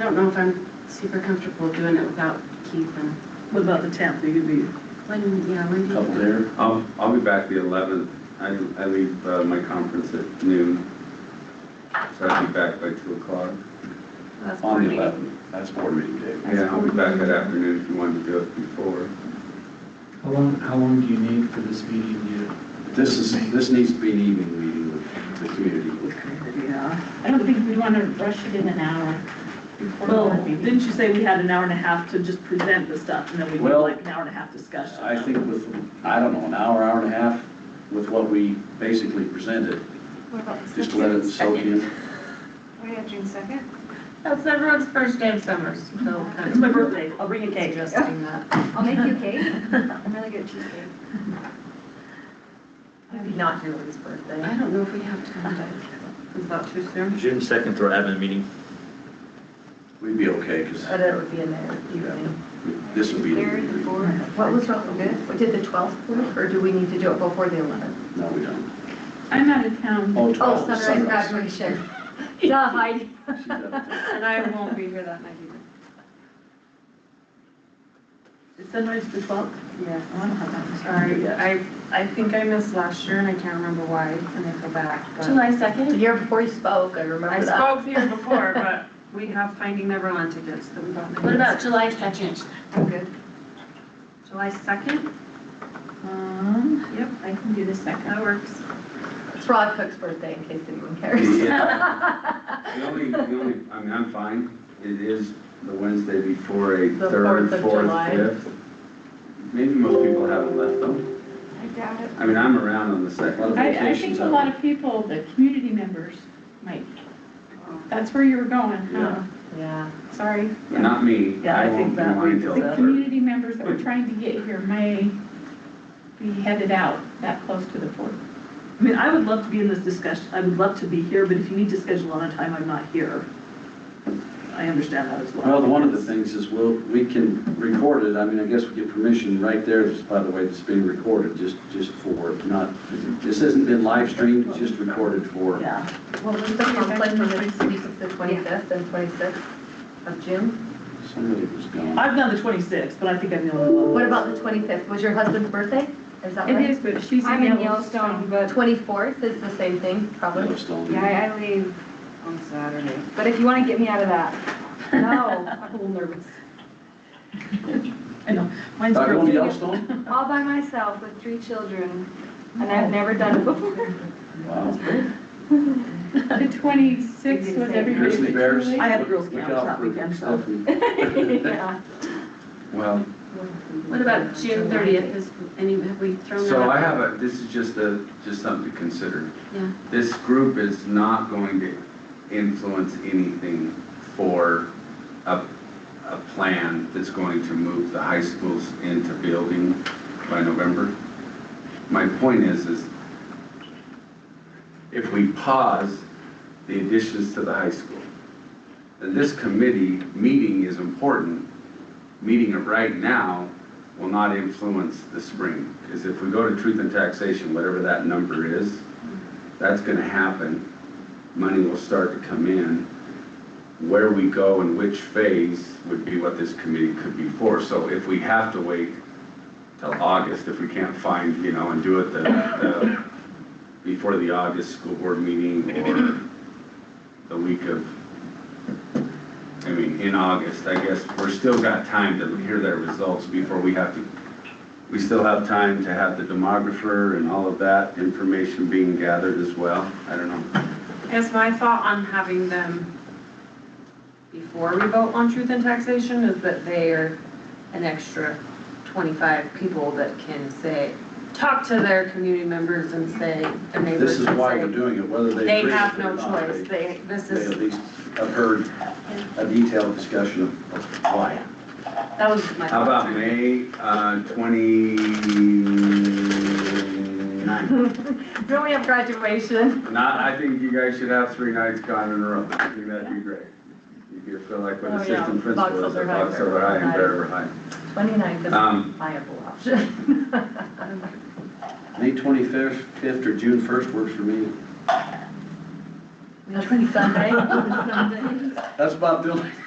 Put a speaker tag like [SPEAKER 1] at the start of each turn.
[SPEAKER 1] don't know if I'm super comfortable doing it without Keith and,
[SPEAKER 2] What about the tenth, you could be,
[SPEAKER 1] when, yeah, when do you?
[SPEAKER 3] couple there.
[SPEAKER 4] I'll, I'll be back the eleventh. I, I leave, uh, my conference at noon. So I'll be back by two o'clock.
[SPEAKER 1] That's
[SPEAKER 3] On the
[SPEAKER 1] morning.
[SPEAKER 3] eleventh, that's board meeting day.
[SPEAKER 4] Yeah, I'll be back that afternoon if you wanted to do it before.
[SPEAKER 5] How long, how long do you need for this meeting to?
[SPEAKER 3] This is, this needs to be an evening meeting with the community.
[SPEAKER 2] yeah.
[SPEAKER 6] I don't think we want to rush it in an hour before
[SPEAKER 2] Well,
[SPEAKER 6] the meeting.
[SPEAKER 2] didn't you say we had an hour and a half to just present the stuff, and then we did
[SPEAKER 3] Well,
[SPEAKER 2] like an hour and a half discussion?
[SPEAKER 3] I think with, I don't know, an hour, hour and a half with what we basically presented,
[SPEAKER 7] What about the
[SPEAKER 3] just let it soak in.
[SPEAKER 7] second? We have June second?
[SPEAKER 1] That's everyone's first day of summer, so.
[SPEAKER 2] It's my birthday.
[SPEAKER 6] I'll bring a cake.
[SPEAKER 1] Suggesting that.
[SPEAKER 7] I'll make you cake. I'm really good at cheesecake.
[SPEAKER 6] Maybe not your Julie's birthday.
[SPEAKER 1] I don't know if we have time to, is that too soon?
[SPEAKER 8] June second, we're having a meeting.
[SPEAKER 3] We'd be okay, because
[SPEAKER 6] But it would be in there evening.
[SPEAKER 3] this would be.
[SPEAKER 7] Third, the fourth.
[SPEAKER 9] What was wrong with it? Did the 12th work, or do we need to do it before the 11th?
[SPEAKER 3] No, we don't.
[SPEAKER 6] I'm out of town.
[SPEAKER 3] Oh,
[SPEAKER 9] Oh,
[SPEAKER 3] 12,
[SPEAKER 9] sunrise graduation. Duh, Heidi.
[SPEAKER 3] She's up.
[SPEAKER 7] And I won't be here that night either.
[SPEAKER 2] Is sunrise the twelfth?
[SPEAKER 1] Yeah.
[SPEAKER 2] I don't have that.
[SPEAKER 1] Sorry, I, I think I missed last year and I can't remember why, and I go back, but.
[SPEAKER 6] July
[SPEAKER 9] The
[SPEAKER 6] second?
[SPEAKER 9] year before you spoke, I
[SPEAKER 1] I
[SPEAKER 9] remember that.
[SPEAKER 1] spoke here before, but we have Finding Neverland tickets that we got.
[SPEAKER 6] What about July second?
[SPEAKER 7] I'm good.
[SPEAKER 1] July second,
[SPEAKER 6] Um,
[SPEAKER 1] Yep.
[SPEAKER 6] I can do the second.
[SPEAKER 1] that works.
[SPEAKER 9] It's Rod Cook's birthday, in case anyone cares.
[SPEAKER 4] The only, the only, I mean, I'm fine. It is the Wednesday before a
[SPEAKER 9] The
[SPEAKER 4] third,
[SPEAKER 9] fourth of
[SPEAKER 4] fourth,
[SPEAKER 9] July.
[SPEAKER 4] fifth. Maybe most people haven't left them.
[SPEAKER 7] I doubt it.
[SPEAKER 4] I mean, I'm around on the second.
[SPEAKER 6] I, I think a lot of people, the community members, might. That's where you were going, huh?
[SPEAKER 4] Yeah.
[SPEAKER 9] Yeah.
[SPEAKER 6] Sorry.
[SPEAKER 4] But Not me.
[SPEAKER 2] Yeah, I think
[SPEAKER 4] won't be
[SPEAKER 2] that
[SPEAKER 4] mine
[SPEAKER 2] we-
[SPEAKER 4] till
[SPEAKER 2] the
[SPEAKER 6] The
[SPEAKER 4] third.
[SPEAKER 6] community members that we're trying to get here may be headed out that close to the fourth.
[SPEAKER 2] I mean, I would love to be in this discussion, I would love to be here, but if you need to schedule on a time, I'm not here. I understand that as well.
[SPEAKER 3] Well, the- one of the things is, well, we can record it, I mean, I guess we get permission right there, This, by the way, it's being recorded, just, just for, not, this hasn't been live streamed, just recorded for.
[SPEAKER 2] Yeah,
[SPEAKER 9] Well, was the conflict for the 26th, the 25th, and 26th of June?
[SPEAKER 3] Somebody was gone.
[SPEAKER 2] I've done the twenty-sixth, but I think I'm the only one.
[SPEAKER 9] What about the 25th? Was your husband's birthday? Is that
[SPEAKER 6] It
[SPEAKER 9] right?
[SPEAKER 6] is, but she's
[SPEAKER 7] I'm in Yellowstone, but
[SPEAKER 9] 24th is the same thing, probably.
[SPEAKER 3] Yellowstone.
[SPEAKER 7] yeah, I- I leave.
[SPEAKER 1] On Saturday.
[SPEAKER 7] But if you want to get me out of that, no, I'm a little nervous.
[SPEAKER 2] I know, mine's
[SPEAKER 3] Uh, going to
[SPEAKER 2] broken.
[SPEAKER 3] Yellowstone?
[SPEAKER 7] All by myself with three children, and I've never done it before.
[SPEAKER 3] Wow.
[SPEAKER 6] The twenty-sixth was everybody's.
[SPEAKER 3] Grizzly bears.
[SPEAKER 2] I had Girl
[SPEAKER 3] Look
[SPEAKER 2] Scouts
[SPEAKER 3] out
[SPEAKER 2] that
[SPEAKER 3] for
[SPEAKER 2] weekend, so-
[SPEAKER 3] Stephanie.
[SPEAKER 7] Yeah.
[SPEAKER 4] Well,
[SPEAKER 1] What about June thirtieth, is, any, have we thrown that
[SPEAKER 4] so I
[SPEAKER 1] out?
[SPEAKER 4] have a, this is just a, just something to consider.
[SPEAKER 1] Yeah.
[SPEAKER 4] This group is not going to influence anything for a, a plan that's going to move the high schools into building by November. My point is, is if we pause the additions to the high school, then this committee meeting is important. Meeting it right now will not influence the spring. Because if we go to truth and taxation, whatever that number is, that's gonna happen. Money will start to come in. Where we go and which phase would be what this committee could be for. So if we have to wait till August, if we can't find, you know, and do it the, the, before the August school board meeting or the week of, I mean, in August, I guess, we're still got time to hear their results before we have to we still have time to have the demographer and all of that information being gathered as well. I don't know.
[SPEAKER 1] I guess my thought on having them before we vote on truth and taxation is that they are an extra twenty-five people that can say, talk to their community members and say, their neighbors
[SPEAKER 3] This is why we're
[SPEAKER 1] and
[SPEAKER 3] doing it, whether
[SPEAKER 1] say,
[SPEAKER 3] they.
[SPEAKER 1] they
[SPEAKER 3] agree
[SPEAKER 1] have
[SPEAKER 3] with it
[SPEAKER 1] no
[SPEAKER 3] or not,
[SPEAKER 1] choice,
[SPEAKER 3] They
[SPEAKER 1] they, this
[SPEAKER 3] they at
[SPEAKER 1] is,
[SPEAKER 3] least have heard a detailed discussion of- of why.
[SPEAKER 1] that was my
[SPEAKER 4] How
[SPEAKER 1] thought.
[SPEAKER 4] about May uh, twenty-nine?
[SPEAKER 9] Don't we have graduation?
[SPEAKER 4] Not, I think you guys should have three nights gone in a row. I think that'd be great. If you feel like what
[SPEAKER 9] Oh, yeah.
[SPEAKER 4] assistant principal is, at
[SPEAKER 9] Box Elder High,
[SPEAKER 4] Box Elder High and Bear
[SPEAKER 9] Bear
[SPEAKER 4] River High.
[SPEAKER 9] 29th is a
[SPEAKER 4] Um,
[SPEAKER 9] viable option.
[SPEAKER 3] May twenty-fifth, fifth or June first works for me.
[SPEAKER 9] That's Sunday. Sunday.
[SPEAKER 3] That's about the only